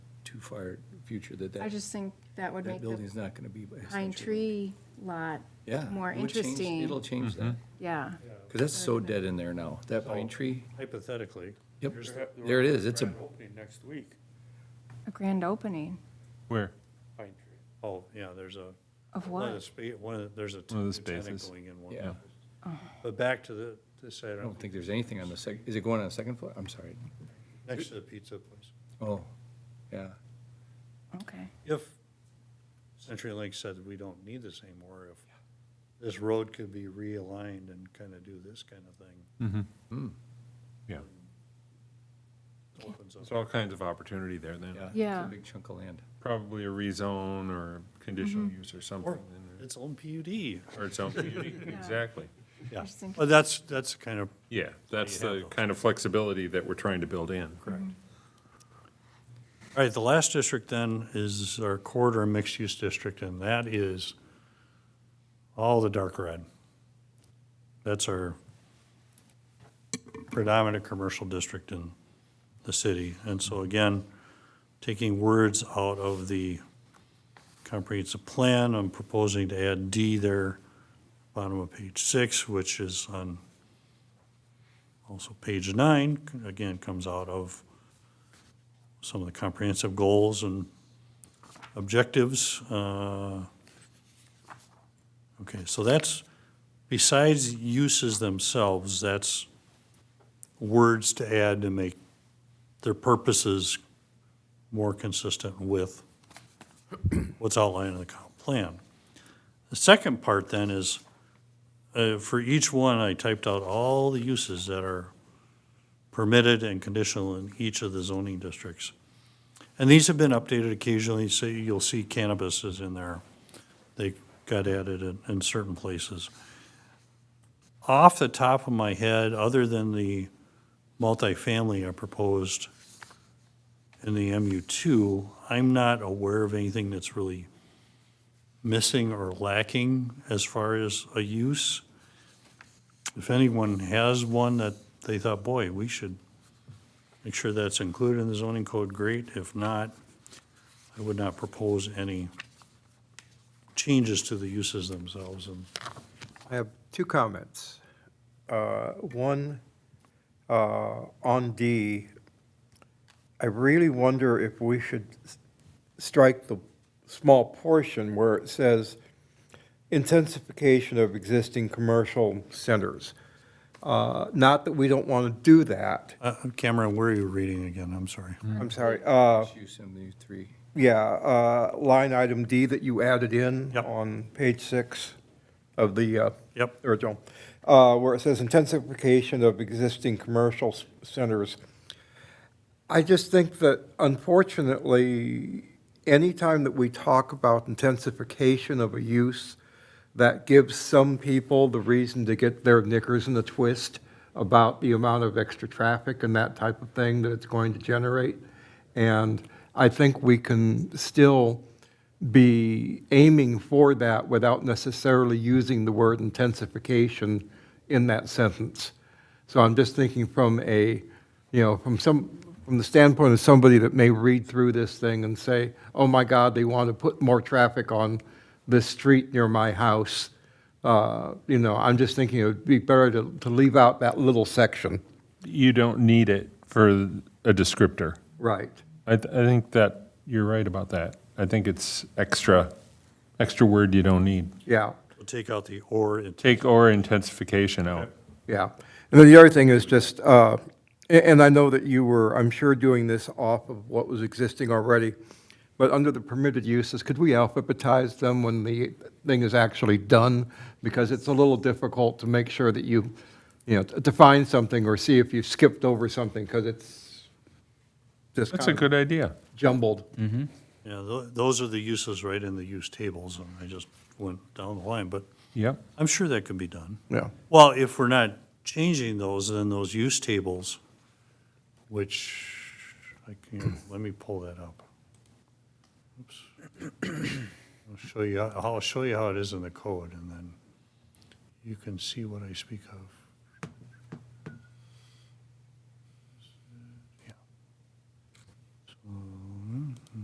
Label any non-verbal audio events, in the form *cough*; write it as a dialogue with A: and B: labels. A: too far future that
B: I
A: that,
B: just think that would make
A: that
B: the
A: building's not going to be.
B: pine
A: essentially-
B: tree lot
A: Yeah,
B: more
A: it would change-
B: interesting.
A: It'll change that,
B: Yeah,
A: because that's so dead in there now, that pine tree.
C: Hypothetically.
A: Yep,
C: there's the-
A: there it is, it's a-
C: grand Opening next week,
B: a grand opening
D: Where?
C: Pine Tree. Oh, yeah, there's a,
B: of
C: one of the,
B: what?
C: spa- one of, the- there's a.
D: One of the
C: tenant
D: spaces. Oh,
C: Going in one.
A: Yeah,
B: Oh.
C: But back to the, uh, this, I
A: I
C: don't,
A: don't think there's anything on the sec, is it going on the second floor? I'm sorry.
C: next to the pizza place.
A: Oh, yeah,
B: Okay.
C: If CenturyLink said we don't need this anymore, if this road could be realigned and kind of do this kind of thing,
D: Yeah.
C: it opens up.
D: There's all kinds of opportunity there then.
A: yeah. it's
B: Yeah.
A: a big chunk of land.
D: Probably a rezone or conditional use or
C: Or
D: something. in
C: its own PUD.
D: there, Or its own, *laughs* exactly.
C: Yeah,
B: Just think-
C: but that's, that's kind of,
D: Yeah, that's
C: you have
D: the
C: those.
D: kind of flexibility that we're trying to build in. Correct.
C: all right, the last district then is our corridor mixed-use district, and that is all the dark red. That's our predominant commercial district in the city. And so again, taking words out of the comprehensive plan, I'm proposing to add D there, bottom of page six, which is on also page nine, again, comes out of some of the comprehensive goals and objectives. uh, Okay, so that's, besides uses themselves, that's words to add to make their purposes more consistent with what's outlined in the comp plan. The second part then is, uh, for each one, I typed out all the uses that are permitted and conditional in each of the zoning districts. And these have been updated occasionally, so you'll see cannabis is in there. They got added in, in certain places. Off the top of my head, other than the multifamily I proposed in the MU2, I'm not aware of anything that's really missing or lacking as far as a use. If anyone has one that they thought, boy, we should make sure that's included in the zoning code, great. If not, I would not propose any changes to the uses themselves. And
E: I have two comments. Uh, One, uh, on D, I really wonder if we should s- strike the small portion where it says intensification of existing commercial centers. Uh, Not that we don't want to do that,
C: uh, Cameron, where are you reading again? I'm sorry.
E: I'm sorry. Uh,
A: Mixed Use in the three,
E: Yeah, uh, line item D that you added in
C: Yep.
E: on page six of the uh,
C: Yep.
E: original, uh, where it says intensification of existing commercial s- centers. I just think that unfortunately, anytime that we talk about intensification of a use, that gives some people the reason to get their knickers in a twist about the amount of extra traffic and that type of thing that it's going to generate. And I think we can still be aiming for that without necessarily using the word intensification in that sentence. So I'm just thinking from a, you know, from some, from the standpoint of somebody that may read through this thing and say, oh my God, they want to put more traffic on this street near my house. Uh, You know, I'm just thinking it would be better to, to leave out that little section.
D: You don't need it for a descriptor.
E: Right.
D: I, th- I think that, you're right about that. I think it's extra, extra word you don't need.
E: Yeah,
C: We'll take out the or. and take-
D: Take or intensification out.
E: yeah. And then the other thing is just, uh, a- and I know that you were, I'm sure, doing this off of what was existing already, but under the permitted uses, could we alphabetize them when the thing is actually done? Because it's a little difficult to make sure that you, you know, to find something or see if you skipped over something, because it's just
D: That's a
E: kind of
D: good idea.
E: jumbled.
C: Yeah, tho- those are the uses right in the use tables. And I just went down the line, but
D: Yep.
C: I'm sure that can be done.
E: Yeah.
C: Well, if we're not changing those, then those use tables, which, I can, let me pull that up. Oops. I'll show you, I'll show you how it is in the code, and then you can see what I speak of.